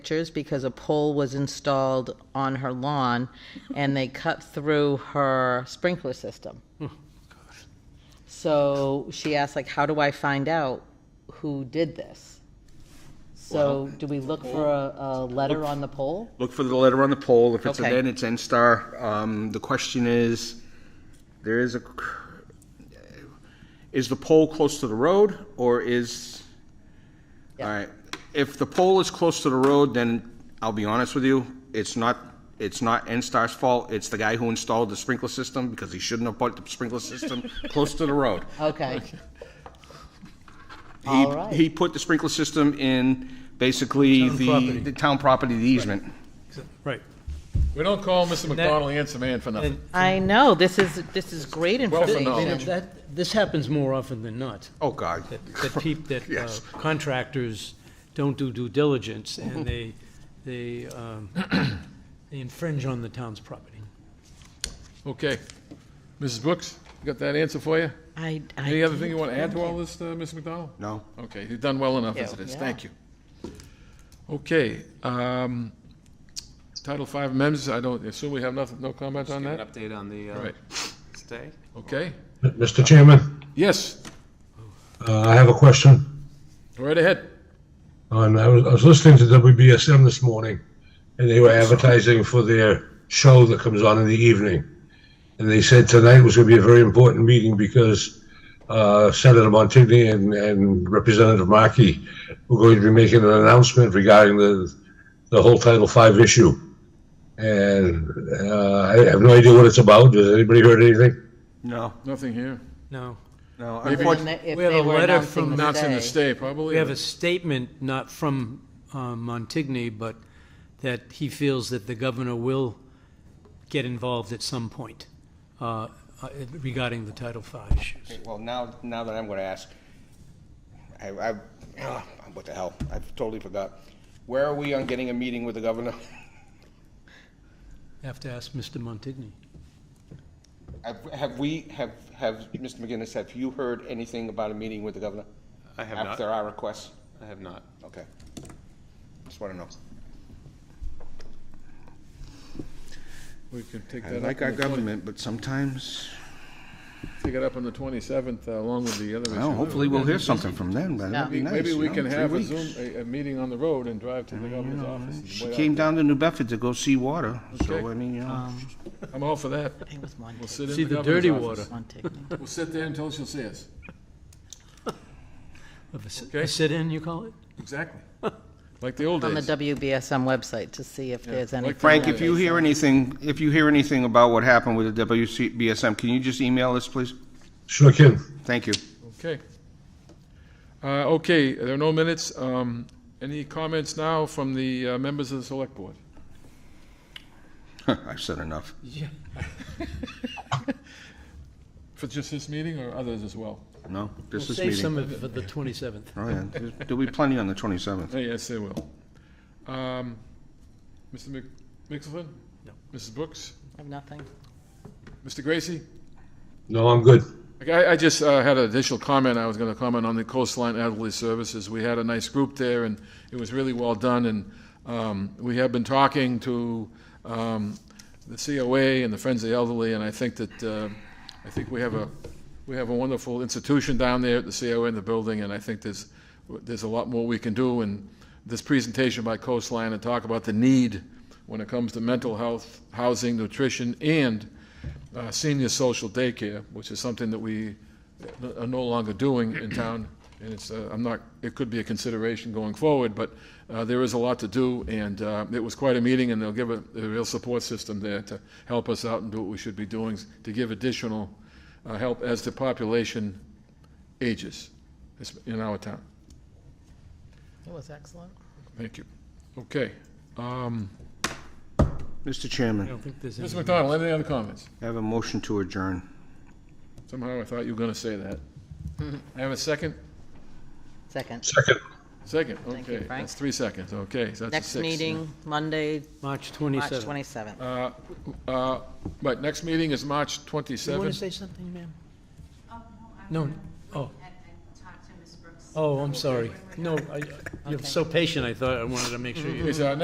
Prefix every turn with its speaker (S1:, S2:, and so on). S1: pictures because a pole was installed on her lawn and they cut through her sprinkler system. So she asked like, how do I find out who did this? So do we look for a, a letter on the pole?
S2: Look for the letter on the poll. If it's a
S1: Okay.
S2: then, it's N-Star. Um, the question is, there is a, cr- is the pole close to the road or is, all right. If the pole is close to the road, then I'll be honest with you, it's not, it's not N-Star's fault. It's the guy who installed the sprinkler system because he shouldn't have put the sprinkler system close to the road.
S1: Okay,
S2: He,
S1: All right.
S2: he put the sprinkler system in basically
S3: Town
S2: the,
S3: property.
S2: the town property, the easement.
S3: Right.
S4: We don't call Mr.
S3: that-
S4: McDonald answer man for nothing.
S1: I know, this is, this is great
S4: Wealth of
S1: information.
S4: knowledge.
S3: That, this happens more often than not,
S2: Oh, God.
S3: that, that peop, that uh,
S2: Yes.
S3: contractors don't do due diligence,
S2: Mm-hmm.
S3: and they, they, um, they infringe on the town's property.
S4: Okay. Mrs. Brooks, you got that answer for you?
S1: I, I.
S4: Any other
S1: did.
S4: thing you want to add to all this, uh, Mr. McDonald?
S2: No?
S4: Okay, you've done well enough as it
S1: Thank
S4: is.
S1: you.
S4: Thank you. Okay, um, Title V amendments, I don't, assume we have nothing, no comment on
S5: Give
S4: that?
S5: an update on the uh,
S4: Right,
S5: stay.
S4: okay.
S6: Mr. Chairman,
S4: Yes,
S6: uh, I have a question.
S4: go right ahead.
S6: On, I was, I was listening to WBSM this morning, and they were advertising for their show that comes on in the evening. And they said tonight was going to be a very important meeting because uh, Senator Montigny and, and Representative Markey were going to be making an announcement regarding the, the whole Title V issue. And uh, I have no idea what it's about. Has anybody heard anything?
S2: No,
S4: Nothing here.
S3: No,
S2: no.
S1: And
S2: Unfortunately,
S1: that If
S3: We have
S1: they
S3: a
S1: were
S3: letter
S1: announcing
S3: from-
S1: the
S4: Not in the
S1: stay.
S4: state, probably.
S3: we have a statement, not from uh, Montigny, but that he feels that the governor will get involved at some point uh, uh, regarding the Title V issues.
S2: Well, now, now that I'm going to ask, I, I, ah, what the hell? I totally forgot. Where are we on getting a meeting with the governor?
S3: Have to ask Mr. Montigny.
S2: Have- Have we, have, have, Mr. McGinnis, have you heard anything about a meeting with the governor?
S5: I have not.
S2: After our request?
S5: I have not.
S2: Okay. Just want to know.
S4: We can take
S2: I
S4: that
S2: like
S4: up, on
S2: our
S4: the 20
S2: government, but sometimes,
S4: take it up on the 27th uh, along with the other issue.
S2: well, hopefully we'll hear something from them, but that'd be
S4: Maybe-
S2: nice.
S4: Maybe
S2: you
S4: we
S2: know,
S4: can
S2: three
S4: have a
S2: weeks.
S4: Zoom, a, a meeting on the road and drive to the governor's office.
S2: She
S4: Way out
S2: came
S4: there.
S2: down to New Bedford to go see water, so,
S4: Okay. Um,
S2: I mean, you know.
S4: I'm all for that.
S1: I think it was
S4: We'll
S1: Montigny.
S4: sit in
S3: See
S4: the
S3: the
S4: governor's
S3: dirty
S4: office.
S3: water
S1: Montigny.
S4: We'll sit there until she'll see us.
S3: of a s-
S4: Okay.
S3: a sit-in, you call it?
S4: Exactly. Like the old
S1: On the
S4: days.
S1: WBSM website to see if there's any.
S4: Like
S2: Frank,
S4: Frank,
S2: if you hear anything, if you hear anything about what happened with the WBSM, can you just email us, please?
S6: Sure can.
S2: Thank you.
S4: Okay. Uh, okay, there are no minutes. Um, any comments now from the uh, members of the select board?
S2: I've said enough.
S4: For just this meeting or others as well?
S2: No, this is
S3: Save some
S2: meeting.
S3: of it for the 27th.
S2: Oh, yeah, There's- there'll be plenty on the 27th.
S4: Uh, Yes, they will. Um, Mr. Mc- Mixelson?
S3: No.
S4: Mrs. Brooks?
S1: Have nothing.
S4: Mr. Gracie?
S6: No, I'm good.
S4: Like, I, I just uh, had an additional comment. I was going to comment on the Coastline Elderly Services. We had a nice group there, and it was really well done. And um, we have been talking to um, the COA and the Friends of the Elderly, and I think that uh, I think we have a we have a wonderful institution down there at the COA in the building, and I think there's there's a lot more we can do. And this presentation by Coastline and talk about the need when it comes to mental health, housing, nutrition, and uh, senior social daycare, which is something that we are no longer doing in town. And it's, uh, I'm not, it could be a consideration going forward, but uh, there is a lot to do. And uh, it was quite a meeting, and they'll give a a real support system there to help us out and do what we should be doing, to give additional uh, help as the population ages in our town.
S1: It was excellent.
S4: Thank you. Okay. Um,
S2: Mr.
S3: I
S2: Chairman,
S3: don't think there's
S4: Mr.
S3: any.
S4: McDonald, any other comments?
S2: I have a motion to adjourn.
S4: Somehow I thought you were going to say that.
S1: Mm-hmm.
S4: I have a second?
S1: Second.
S6: Second.
S4: Second,
S1: you,
S4: okay.
S1: Frank.
S4: That's three seconds, okay, so that's a
S1: Next
S4: six.
S1: meeting, Monday,
S3: March
S1: March
S3: 27th.
S1: 27th.
S4: Uh, uh, But next meeting is March
S3: You want
S4: 27th.
S3: to say something, ma'am?
S7: Oh, no, I'm
S3: No,
S7: gonna
S3: oh.
S7: wait and- and talk to Ms. Brooks
S3: Oh, I'm sorry. No, I- you're so patient, I thought, I wanted to make sure you.
S4: Is our next